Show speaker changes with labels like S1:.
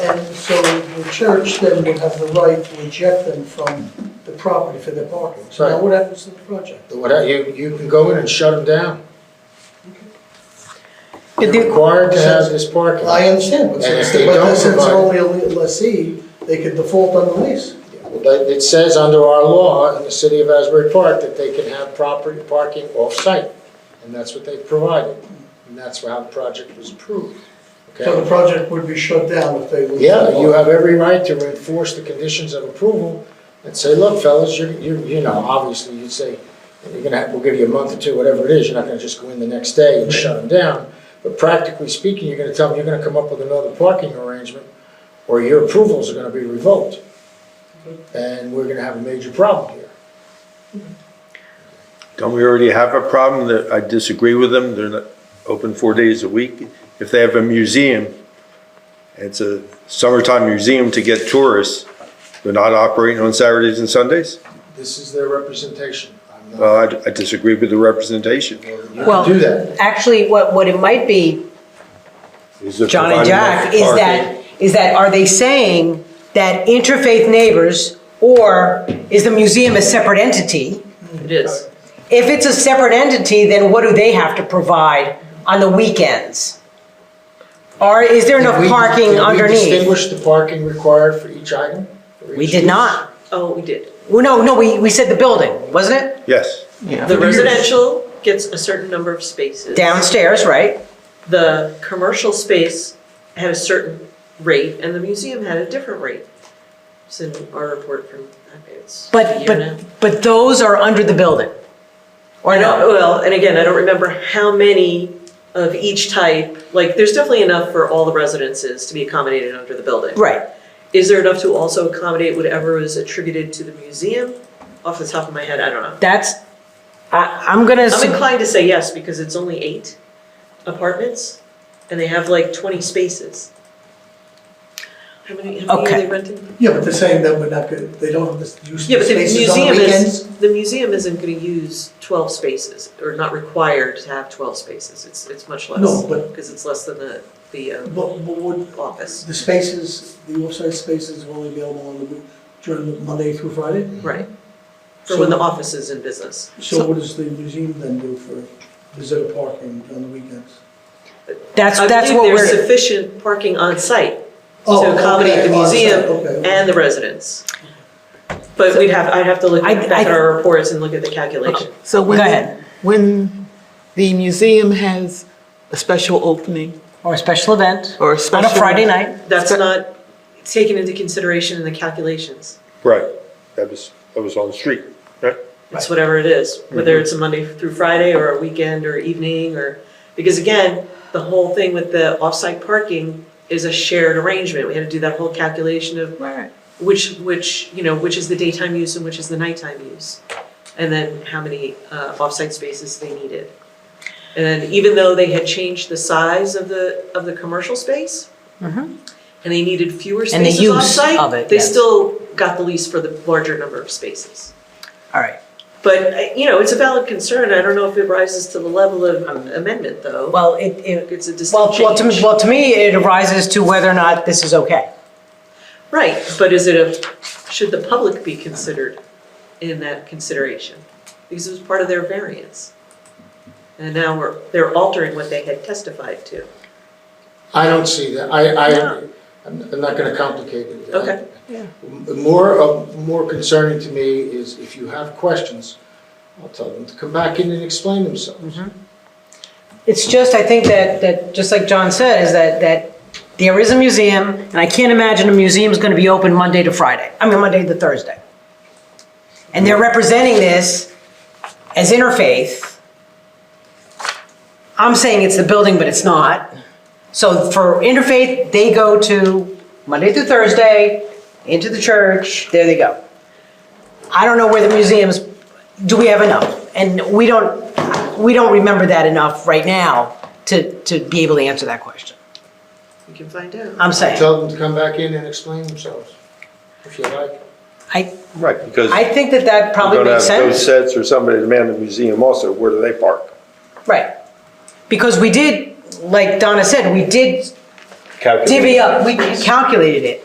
S1: And so the church then would have the right to eject them from the property for their parking. So now
S2: Right.
S1: what happens to the project?
S2: Whatever, you, you can go in and shut them down.
S3: It
S2: You're
S3: did-
S2: required to have this parking.
S1: I understand, but
S2: And if
S1: since,
S2: they
S1: but
S2: don't
S1: since they're only
S2: provide-
S1: a lessee, they could default on the lease.
S2: That- It says under our law in the city of Asbury Park that they can have property parking off-site, and that's what they provided, and that's how the project was approved,
S1: So the
S2: okay?
S1: project would be shut down if they lose.
S2: Yeah, you have every right to enforce the conditions of approval and say, look, fellas, you're, you, you know, obviously, you'd say, you're gonna, have- we'll give you a month or two, whatever it is, you're not gonna just go in the next day and shut them down, but practically speaking, you're gonna tell them, you're gonna come up with another parking arrangement, or your approvals are gonna be revoked and we're gonna have a major problem here.
S4: Don't we already have a problem that I disagree with them? They're not open four days a week. If they have a museum, it's a summertime museum to get tourists, they're not operating on Saturdays and Sundays?
S2: This is their representation. I'm
S4: Well,
S2: not,
S4: I- I disagree with the representation.
S2: you
S3: Well,
S2: can do that.
S3: Actually, what, what it might be,
S4: Is it
S3: John and
S4: providing
S3: Jack,
S4: enough
S3: is
S4: parking?
S3: that, is that, are they saying that interfaith neighbors, or is the museum a separate entity?
S5: It is.
S3: If it's a separate entity, then what do they have to provide on the weekends? Or is there
S2: Did
S3: enough
S2: we-
S3: parking
S2: Did we
S3: underneath?
S2: distinguish the parking required for each item? for
S3: We
S2: each
S3: did
S2: use?
S3: not.
S5: Oh, we did.
S3: Well, no, no, we, we said the building, wasn't it?
S4: Yes.
S5: The residential gets a certain number of spaces.
S3: Downstairs, right?
S5: The commercial space had a certain rate, and the museum had a different rate. It's in our report from, I mean, it's a
S3: But,
S5: year now.
S3: but, but those are under the building? Or
S5: I don't,
S3: no?
S5: well, and again, I don't remember how many of each type, like, there's definitely enough for all the residences to be accommodated under the building.
S3: Right.
S5: Is there enough to also accommodate whatever is attributed to the museum? Off the top of my head, I don't know.
S3: That's, I, I'm gonna,
S5: I'm
S3: su-
S5: inclined to say yes, because it's only eight apartments, and they have like twenty spaces. How many, how many are
S3: Okay.
S5: they renting?
S1: Yeah, but they're saying that we're not good, they don't have this use
S5: Yeah,
S1: of
S5: but the
S1: spaces on the
S5: museum
S1: weekends.
S5: is, the museum isn't gonna use twelve spaces, or not required to have twelve spaces, it's, it's much less.
S1: No, but-
S5: Because it's less than the, the, um,
S1: But, but would,
S5: office,
S1: the spaces, the off-site spaces are only available on the, week- during Monday through Friday?
S5: right? For when
S1: Mm-hmm. So-
S5: the office is in business.
S1: So what does the museum then do for visitor parking on the weekends?
S3: that's, that's what
S5: I believe there's
S3: we're,
S5: sufficient parking on site
S1: Oh,
S5: to accommodate
S1: okay,
S5: the
S1: on site,
S5: museum
S1: okay, okay.
S5: and the residents. But we'd have, I'd have to look
S3: I-
S5: back at
S3: I-
S5: our reports and look at the calculation.
S6: So when,
S3: Go
S6: the-
S3: ahead.
S6: when the museum has a special opening
S3: or a special event,
S6: or a
S3: on
S6: special.
S3: a Friday night.
S5: That's not taken into consideration in the calculations.
S4: Right. That was, that was on the street, right?
S5: It's whatever it is, whether it's a Monday through Friday or a weekend or evening or, because again, the whole thing with the off-site parking is a shared arrangement. We had to do that whole calculation of which, which, you know, which is the daytime use and which is the nighttime use. And then how many uh, off-site spaces they needed. And then even though they had changed the size of the, of the commercial space, and they needed fewer
S3: Mm-hmm. And the
S5: spaces
S3: use
S5: off-site,
S3: of it,
S5: they
S3: yes.
S5: still got the lease for the larger number of spaces.
S3: All right.
S5: But, uh, you know, it's a valid concern. I don't know if it rises to the level of um, amendment, though.
S3: Well, it, it,
S5: It's a
S3: well,
S5: distinct
S3: well, to, me-
S5: change.
S3: well, to me, it arises to whether or not this is okay.
S5: Right, but is it a, should the public be considered in that consideration? Because it was part of their variance. And now we're, they're altering what they had testified to.
S2: I don't see that. I, I,
S5: No.
S2: I'm I'm not gonna complicate it.
S5: Okay.
S6: Yeah.
S2: M- More, of- more concerning to me is if you have questions, I'll tell them to come back in and explain themselves.
S5: Mm-hmm.
S3: It's just, I think that, that, just like John said, is that, that there is a museum, and I can't imagine a museum's gonna be open Monday to Friday, I mean, Monday to Thursday. And they're representing this as interfaith. I'm saying it's the building, but it's not. So for interfaith, they go to Monday through Thursday, into the church, there they go. I don't know where the museums, do we have enough? And we don't, we don't remember that enough right now to, to be able to answer that question.
S5: We can find out.
S3: I'm saying,
S2: Tell them to come back in and explain themselves, if you like.
S3: I,
S4: Right, because
S3: I
S4: you're
S3: think that that probably
S4: gonna have
S3: makes
S4: those
S3: sense.
S4: sets or somebody to man the museum also, where do they park?
S3: Right. Because we did, like Donna said, we did
S4: calculate.
S3: divvy up, we calculated it.